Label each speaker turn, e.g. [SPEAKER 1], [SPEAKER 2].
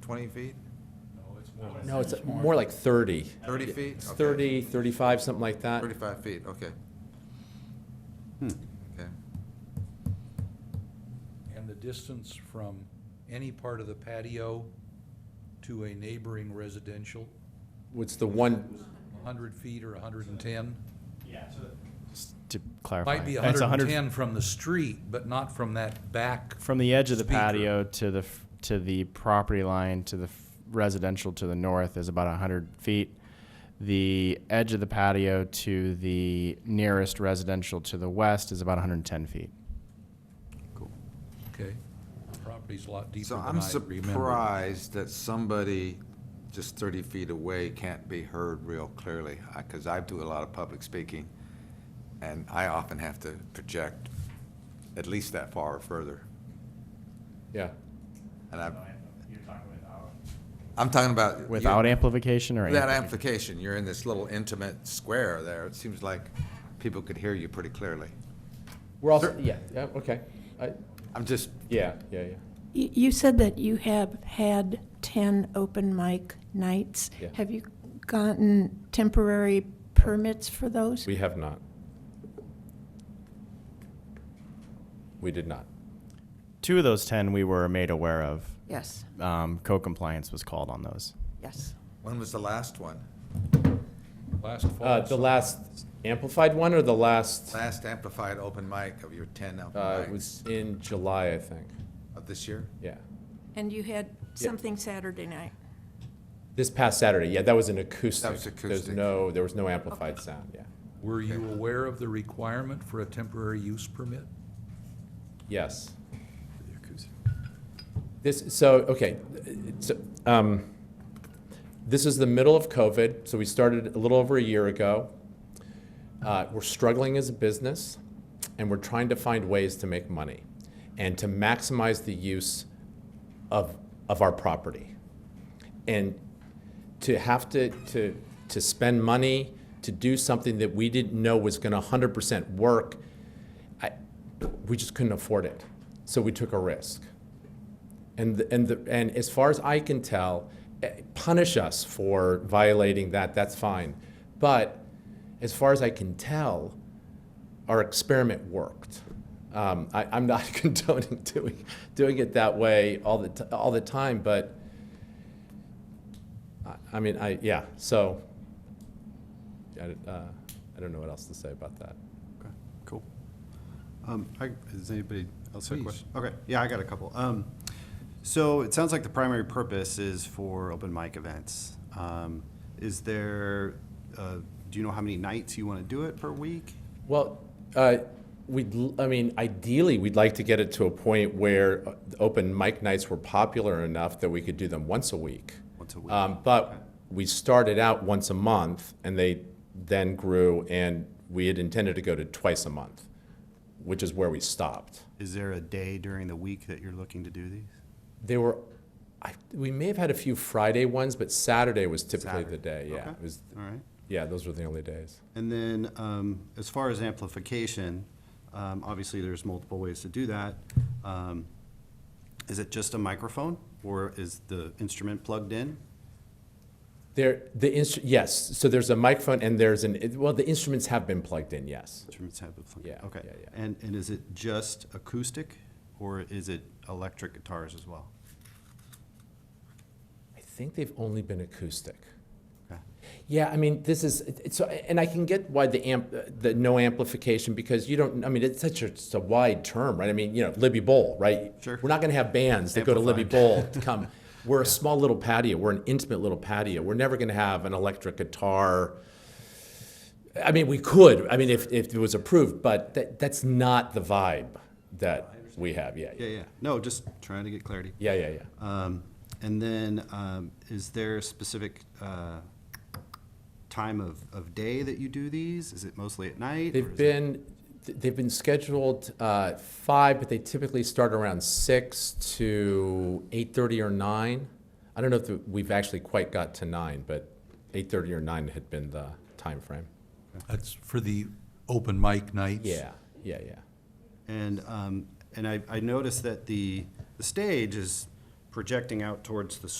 [SPEAKER 1] 20 feet?
[SPEAKER 2] No, it's more like 30.
[SPEAKER 1] 30 feet?
[SPEAKER 2] It's
[SPEAKER 1] Okay.
[SPEAKER 2] 30, 35, something like
[SPEAKER 3] Uh,
[SPEAKER 2] that.
[SPEAKER 1] 35 feet, okay.
[SPEAKER 3] Hmm.
[SPEAKER 1] Okay.
[SPEAKER 3] And the distance from any part of the patio to a neighboring residential,
[SPEAKER 2] What's the one,
[SPEAKER 3] hundred feet or hundred and ten?
[SPEAKER 4] To clarify.
[SPEAKER 3] Might be
[SPEAKER 4] It's
[SPEAKER 3] hundred and
[SPEAKER 4] 100
[SPEAKER 3] ten from the street, but not from that back.
[SPEAKER 4] From the edge of the
[SPEAKER 3] speaker.
[SPEAKER 4] patio to the, f- to the property line, to the f- residential to the north is about hundred feet. The edge of the patio to the nearest residential to the west is about hundred and ten feet.
[SPEAKER 3] Okay. Property's a lot deeper
[SPEAKER 1] So
[SPEAKER 3] than I
[SPEAKER 1] I'm
[SPEAKER 3] remember.
[SPEAKER 1] surprised that somebody just 30 feet away can't be heard real clearly, because I do a lot of public speaking, and I often have to project at least that far or further.
[SPEAKER 2] yeah.
[SPEAKER 1] And I, I'm talking about. you-
[SPEAKER 4] Without amplification or
[SPEAKER 1] That
[SPEAKER 4] anything?
[SPEAKER 1] amplification, you're in this little intimate square there. It seems like people could hear you pretty clearly.
[SPEAKER 2] We're also, yeah, yeah, okay. I-
[SPEAKER 1] I'm just,
[SPEAKER 2] Yeah, yeah, yeah.
[SPEAKER 5] You you said that you have had 10 open mic nights.
[SPEAKER 2] Yeah.
[SPEAKER 5] Have you gotten temporary permits for those?
[SPEAKER 2] We have not. We did not.
[SPEAKER 4] Two of those ten we were made aware of.
[SPEAKER 5] Yes,
[SPEAKER 4] Um, co-compliance was called on those.
[SPEAKER 5] yes.
[SPEAKER 1] when was the last one?
[SPEAKER 3] Last
[SPEAKER 2] Uh,
[SPEAKER 3] fall.
[SPEAKER 2] The last amplified one or the last, uh,
[SPEAKER 1] Last amplified open mic of your 10 open
[SPEAKER 2] it
[SPEAKER 1] mics
[SPEAKER 2] was in July, I think,
[SPEAKER 1] of this year?
[SPEAKER 2] yeah.
[SPEAKER 5] And you had something Saturday night?
[SPEAKER 2] This past Saturday, yeah, that was an acoustic. There's
[SPEAKER 1] acoustic.
[SPEAKER 2] no, there was no amplified sound, yeah.
[SPEAKER 3] Were you aware of the requirement for a temporary use permit?
[SPEAKER 2] Yes. This, so, okay, so, um, this is the middle of COVID, so we started a little over a year ago. Uh, we're struggling as a business, and we're trying to find ways to make money and to maximize the use of, of our property. And to have to, to, to spend money to do something that we didn't know was going to 100% work, I, we just couldn't afford it. So we took a risk. And, the, and, the, and as far as I can tell, eh, punish us for violating that, that's fine. But as far as I can tell, our experiment worked. Um, I, I'm not condoning doing, doing it that way all the, t- all the time, but I, I mean, I, yeah, so I, don't- uh, I don't know what else to say about that.
[SPEAKER 6] Okay, cool. Um, I, does anybody else have a
[SPEAKER 1] Please.
[SPEAKER 6] question? Okay, yeah, I got a couple. Um, so it sounds like the primary purpose is for open mic events. Um, is there, uh, do you know how many nights you want to do it per week?
[SPEAKER 2] Well, uh, we'd, l- I mean, ideally, we'd like to get it to a point where uh, open mic nights were popular enough that we could do them once a week.
[SPEAKER 6] Once a week,
[SPEAKER 2] Um, But
[SPEAKER 6] okay.
[SPEAKER 2] we started out once a month, and they then grew, and we had intended to go to twice a month, which is where we stopped.
[SPEAKER 6] Is there a day during the week that you're looking to do these?
[SPEAKER 2] They were, I, we may have had a few Friday ones, but Saturday was typically the
[SPEAKER 6] Saturday,
[SPEAKER 2] day, yeah.
[SPEAKER 6] okay.
[SPEAKER 2] It was,
[SPEAKER 6] All right.
[SPEAKER 2] yeah, those were the only days.
[SPEAKER 6] And then, um, as far as amplification, um, obviously, there's multiple ways to do that. Um, Is it just a microphone, or is the instrument plugged in?
[SPEAKER 2] There, the instru, yes, so there's a microphone and there's an, it- well, the instruments have been plugged in, yes.
[SPEAKER 6] Instruments have the plug.
[SPEAKER 2] Yeah,
[SPEAKER 6] Okay.
[SPEAKER 2] yeah, yeah.
[SPEAKER 6] And, and is it just acoustic, or is it electric guitars as well?
[SPEAKER 2] I think they've only been acoustic.
[SPEAKER 6] Okay.
[SPEAKER 2] Yeah, I mean, this is it- it's, and I can get why the amp, the no amplification because you don't. I mean, it's such a, it's a wide term, right? I mean, you know, Libby Bowl, right?
[SPEAKER 6] Sure.
[SPEAKER 2] We're not going to have bands that go to Libby Bowl to come. We're a small little patio. We're an intimate little patio. We're never going to have an electric guitar. I mean, we could. I mean, if, if it was approved, but that, that's not the vibe that we have. Yeah,
[SPEAKER 6] Yeah, yeah. No, just trying to get clarity.
[SPEAKER 2] yeah, yeah, yeah.
[SPEAKER 6] Um, And then, um, is there a specific uh, time of, of day that you do these? Is it mostly at night? or
[SPEAKER 2] They've
[SPEAKER 6] is it-
[SPEAKER 2] been, th- they've been scheduled uh, five, but they typically start around six to eight-thirty or nine. I don't know if the- we've actually quite got to nine, but eight-thirty or nine had been the time frame.
[SPEAKER 3] That's for the open mic nights?
[SPEAKER 2] Yeah, yeah, yeah.
[SPEAKER 6] And, um, and I, I noticed that the, the stage is projecting out towards the